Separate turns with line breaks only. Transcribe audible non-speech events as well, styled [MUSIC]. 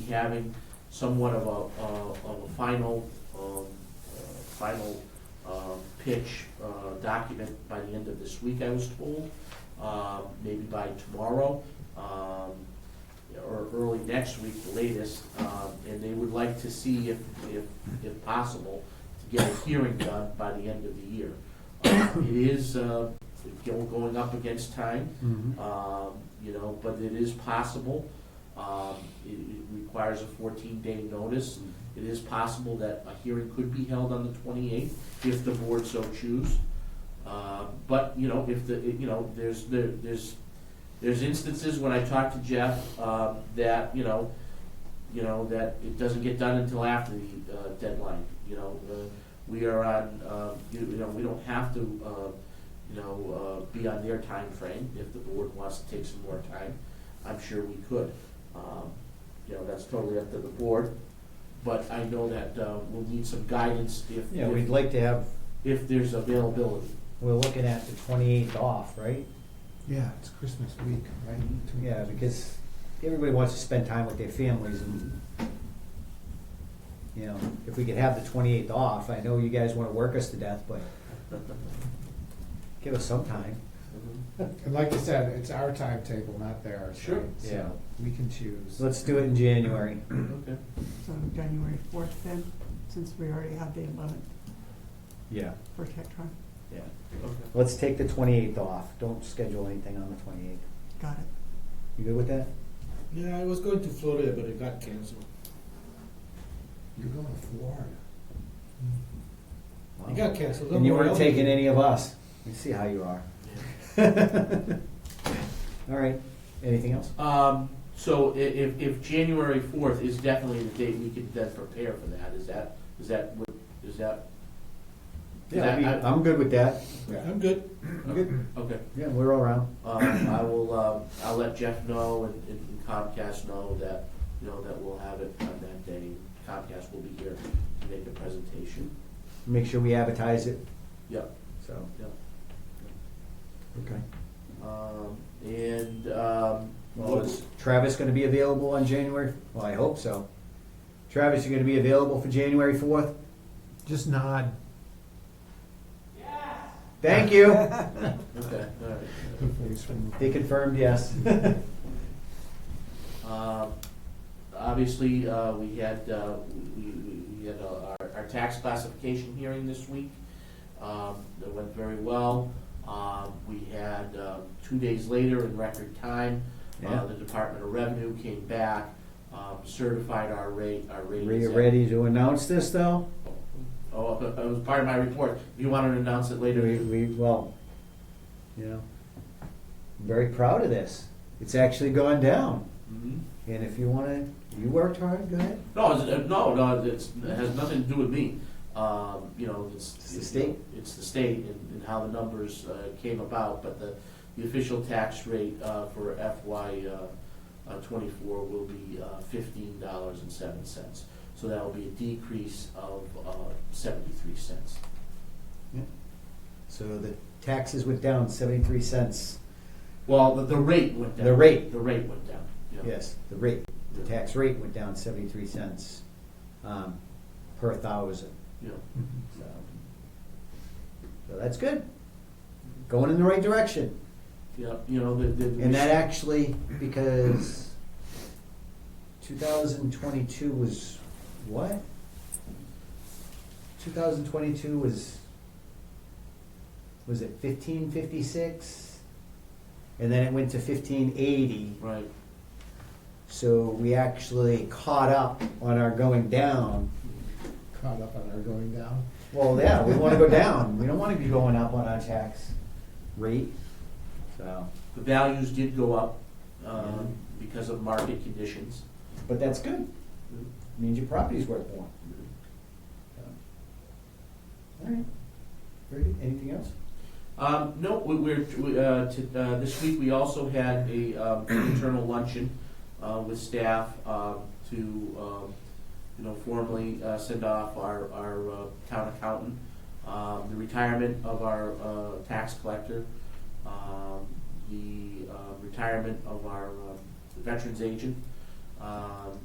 having somewhat of a, uh, of a final, um, uh, final um, pitch uh, document by the end of this week, I was told, um, maybe by tomorrow, um, or early next week, the latest, um, and they would like to see if, if, if possible, to get a hearing done by the end of the year. Uh, It is, uh, go- going up against time,
Mm-hmm.
um, you know, but it is possible. Um, it, it requires a fourteen-day notice. It is possible that a hearing could be held on the twenty-eighth, if the board so choose. Uh, but, you know, if the, you know, there's, there, there's, there's instances when I talk to Jeff, um, that, you know, you know, that it doesn't get done until after the, uh, deadline, you know, uh, we are on, uh, you, you know, we don't have to, uh, you know, uh, be on their time frame. If the board wants to take some more time, I'm sure we could. Um, you know, that's totally up to the board, but I know that, uh, we'll need some guidance if,
Yeah, we'd like to have,
if there's availability.
we're looking at the twenty-eighth off, right?
Yeah, it's Christmas week, right? Two
Yeah,
weeks.
because everybody wants to spend time with their families and, you know, if we could have the twenty-eighth off, I know you guys wanna work us to death, but give us some time.
And like you said, it's our timetable, not theirs.
Sure.
right? So We can choose.
So let's do it in January.
Okay.
So January fourth then, since we already have the eleventh
Yeah.
for Tetra.
Yeah.
Okay.
Let's take the twenty-eighth off. Don't schedule anything on the twenty-eighth.
Got it.
You good with that?
Yeah, I was going to Florida, but it got canceled.
You're going to Florida.
It got canceled.
And you
Don't worry,
weren't
I'll
taking
be-
any of us. We see how you are.
Yeah.
[LAUGHS] All right, anything else?
Um, so i- if, if January fourth is definitely the date, we could then prepare for that, is that, is that, what- is that?
Yeah, I- I'm good with that.
I'm good.
I'm good.
Okay,
Yeah, we're all around.
um, I will, um, I'll let Jeff know and and Comcast know that, you know, that we'll have it on that day. Comcast will be here to make the presentation,
Make sure we advertise it,
yep,
so.
yep.
Okay.
Um, and, um,
Well,
what-
is Travis gonna be available on January? Well, I hope so. Travis, you gonna be available for January fourth?
Just nod.
Thank you. [LAUGHS]
okay, all right.
The voice from-
They confirmed yes.
Um, Obviously, uh, we had, uh, we we- we had uh, our our tax classification hearing this week. Um, That went very well. Um, We had, uh, two days later in record time,
Yeah.
uh, the Department of Revenue came back, um, certified our rate, our rate.
Are you ready to announce this, though?
Oh, [LAUGHS] it was part of my report. If you want to announce it later,
We,
you-
we, well, you know, very proud of this. It's actually gone down.
Mhm.
And if you wanna, you worked hard, go ahead.
No, it's, uh, no, no, it's, it has nothing to do with me. Um, you know, it's.
It's the state?
It's the state and, and how the numbers, uh, came about, but the, the official tax rate, uh, for FY, uh, uh, twenty-four will be, uh, fifteen dollars and seven cents. So that will be a decrease of, uh, seventy-three cents.
So the taxes went down seventy-three cents.
Well, the, the rate went down.
The rate.
The rate went down, yeah.
Yes, the rate, the tax rate went down seventy-three cents um, per thousand,
Yeah.
so. So that's good. Going in the right direction.
Yeah, you know, the, the.
And that actually, because two thousand twenty-two was what? Two thousand twenty-two was, was it fifteen fifty-six? And then it went to fifteen eighty.
Right,
So we actually caught up on our going down.
Caught up on our going down.
Well, yeah, we want to go down. We don't want to be going up on our tax rate. So,
the values did go up, um, because of market conditions.
but that's good. Means your property's worth more. So, All right. Very good. Anything else?
Um, no, we, we're, we, uh, to, uh, this week we also had a, um, internal luncheon, uh, with staff, um, to, um, you know, formally, uh, send off our, our, uh, town accountant, um, the retirement of our, uh, tax collector, um, the, uh, retirement of our, uh, um, veterans agent, um,